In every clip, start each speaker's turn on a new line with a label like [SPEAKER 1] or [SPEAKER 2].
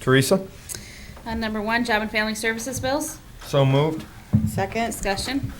[SPEAKER 1] Teresa?
[SPEAKER 2] On Uh, number one, Job and Family Services bills.
[SPEAKER 1] So moved.
[SPEAKER 3] Second.
[SPEAKER 2] Discussion.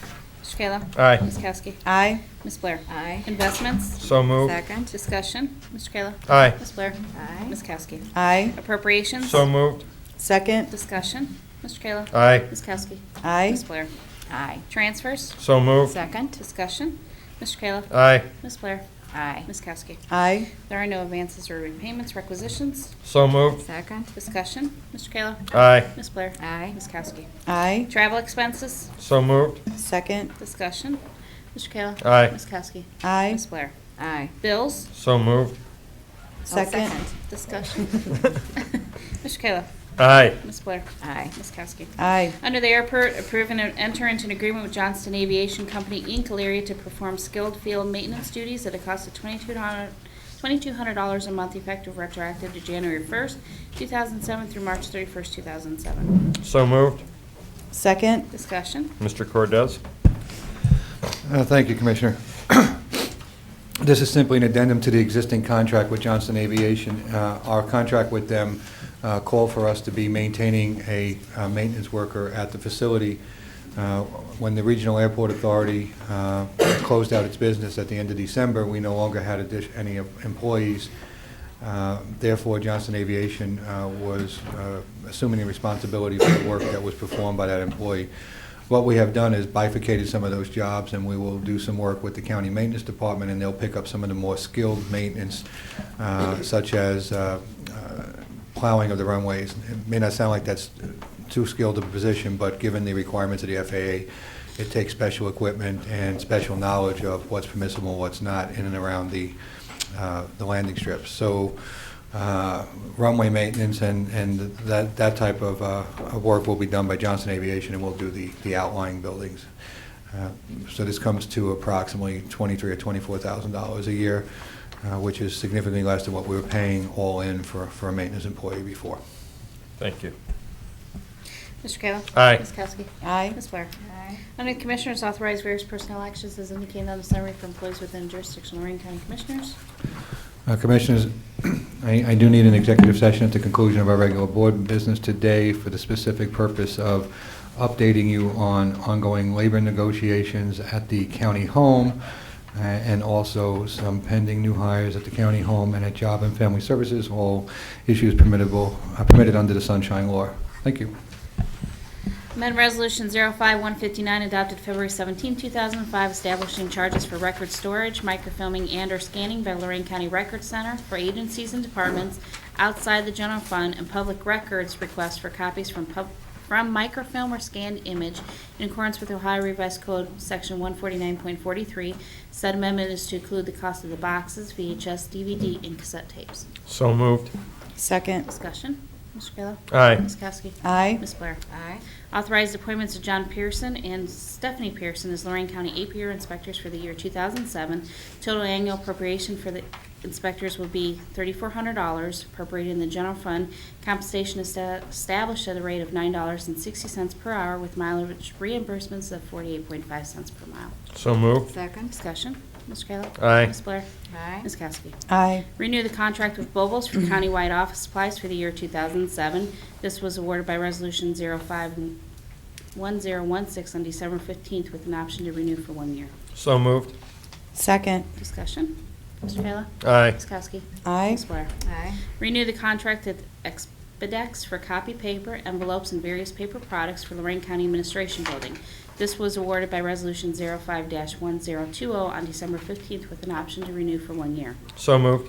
[SPEAKER 2] Mr. Kayla.
[SPEAKER 1] Aye.
[SPEAKER 2] Ms. Kowski.
[SPEAKER 3] Aye.
[SPEAKER 2] Ms. Blair.
[SPEAKER 4] Aye.
[SPEAKER 2] Investments.
[SPEAKER 1] So moved.
[SPEAKER 4] Second.
[SPEAKER 2] Discussion. Mr. Kayla.
[SPEAKER 1] Aye.
[SPEAKER 2] Ms. Blair.
[SPEAKER 4] Aye.
[SPEAKER 2] Ms. Kowski.
[SPEAKER 3] Aye.
[SPEAKER 2] Appropriations.
[SPEAKER 1] So moved.
[SPEAKER 3] Second.
[SPEAKER 2] Discussion. Mr. Kayla.
[SPEAKER 1] Aye.
[SPEAKER 2] Ms. Kowski.
[SPEAKER 3] Aye.
[SPEAKER 2] Ms. Blair.
[SPEAKER 4] Aye.
[SPEAKER 2] Transfers.
[SPEAKER 1] So moved.
[SPEAKER 4] Second.
[SPEAKER 2] Discussion. Mr. Kayla.
[SPEAKER 1] Aye.
[SPEAKER 2] Ms. Blair.
[SPEAKER 4] Aye.
[SPEAKER 2] Ms. Kowski.
[SPEAKER 3] Aye.
[SPEAKER 2] There are no advances or repayments, requisitions.
[SPEAKER 1] So moved.
[SPEAKER 4] Second.
[SPEAKER 2] Discussion. Mr. Kayla.
[SPEAKER 1] Aye.
[SPEAKER 2] Ms. Blair.
[SPEAKER 4] Aye.
[SPEAKER 2] Ms. Kowski.
[SPEAKER 3] Aye.
[SPEAKER 2] Travel expenses.
[SPEAKER 1] So moved.
[SPEAKER 3] Second.
[SPEAKER 2] Discussion. Mr. Kayla.
[SPEAKER 1] Aye.
[SPEAKER 2] Ms. Kowski.
[SPEAKER 3] Aye.
[SPEAKER 2] Ms. Blair.
[SPEAKER 4] Aye.
[SPEAKER 2] Bills.
[SPEAKER 1] So moved.
[SPEAKER 3] Second.
[SPEAKER 2] Discussion. Mr. Kayla.
[SPEAKER 1] Aye.
[SPEAKER 2] Ms. Blair.
[SPEAKER 4] Aye.
[SPEAKER 2] Ms. Kowski.
[SPEAKER 3] Aye.
[SPEAKER 2] Under the airport, approve and enter into an agreement with Johnston Aviation Company, Inc., Elyria, to perform skilled field maintenance duties at a cost of $2,200 $2,200 a month effective retroactive to January 1st, 2007 through March 31st, 2007.
[SPEAKER 1] So moved.
[SPEAKER 3] Second.
[SPEAKER 2] Discussion.
[SPEAKER 1] Mr. Cordez?
[SPEAKER 5] Uh, Thank you, Commissioner. This is simply an addendum to the existing contract with Johnston Aviation. Uh, Our contract with them uh, called for us to be maintaining a uh, maintenance worker at the facility. Uh, When the Regional Airport Authority uh, closed out its business at the end of December, we no longer had addi- any employees. Uh, Therefore, Johnston Aviation uh, was uh, assuming the responsibility for the work that was performed by that employee. What we have done is bifurcated some of those jobs, and we will do some work with the county maintenance department, and they'll pick up some of the more skilled maintenance, uh, such as uh, uh, plowing of the runways. It may not sound like that's too skilled a position, but given the requirements of the FAA, it takes special equipment and special knowledge of what's permissible, what's not, in and around the uh, the landing strips. So uh, runway maintenance and, and that, that type of uh, of work will be done by Johnson Aviation, and we'll do the, the outlying buildings. Uh, So this comes to approximately twenty-three or twenty-four thousand dollars a year, uh, which is significantly less than what we were paying all in for, for a maintenance employee before.
[SPEAKER 1] Thank you.
[SPEAKER 2] Mr. Kayla.
[SPEAKER 1] Aye.
[SPEAKER 2] Ms. Kowski.
[SPEAKER 3] Aye.
[SPEAKER 2] Ms. Blair.
[SPEAKER 4] Aye.
[SPEAKER 2] Under the Commissioners, authorize various personnel actions as indicated on the summary for employees within jurisdiction of Lorraine County Commissioners.
[SPEAKER 5] Uh, Commissioners, I I do need an executive session at the conclusion of our regular board business today for the specific purpose of updating you on ongoing labor negotiations at the county home, uh, and also some pending new hires at the county home and at Job and Family Services, all issues permittable, uh, permitted under the Sunshine Law. Thank you.
[SPEAKER 2] Amendment Resolution 05159 adopted February 17, 2005, establishing charges for record storage, microfilming, and/or scanning by Lorraine County Record Center for agencies and departments outside the general fund and public records requests for copies from pub- from microfilm or scanned image in accordance with Ohio Revised Code, Section 149.43. Said amendment is to include the cost of the boxes, VHS, DVD, and cassette tapes.
[SPEAKER 1] So moved.
[SPEAKER 3] Second.
[SPEAKER 2] Discussion. Mr. Kayla?
[SPEAKER 1] Aye.
[SPEAKER 2] Ms. Kowski?
[SPEAKER 3] Aye.
[SPEAKER 2] Ms. Blair?
[SPEAKER 4] Aye.
[SPEAKER 2] Authorized appointments of John Pearson and Stephanie Pearson as Lorraine County APR inspectors for the year 2007. Total annual appropriation for the inspectors will be $3,400 appropriated in the general fund. Compensation is sta- established at a rate of $9.60 per hour with mileage reimbursements of 48.5 cents per mile.
[SPEAKER 1] So moved.
[SPEAKER 4] Second.
[SPEAKER 2] Discussion, Mr. Kayla?
[SPEAKER 1] Aye.
[SPEAKER 2] Ms. Blair?
[SPEAKER 4] Aye.
[SPEAKER 2] Ms. Kowski?
[SPEAKER 3] Aye.
[SPEAKER 2] Renew the contract with Bobles for countywide office supplies for the year 2007. This was awarded by Resolution 051016 on December 15th with an option to renew for one year.
[SPEAKER 1] So moved.
[SPEAKER 3] Second.
[SPEAKER 2] Discussion? Mr. Kayla?
[SPEAKER 1] Aye.
[SPEAKER 2] Ms. Kowski?
[SPEAKER 3] Aye.
[SPEAKER 2] Ms. Blair?
[SPEAKER 4] Aye.
[SPEAKER 2] Renew the contract with Expedex for copy paper, envelopes, and various paper products for Lorraine County Administration Building. This was awarded by oh Resolution 05-1020 on December 15th with an option to renew for one year.
[SPEAKER 1] So moved.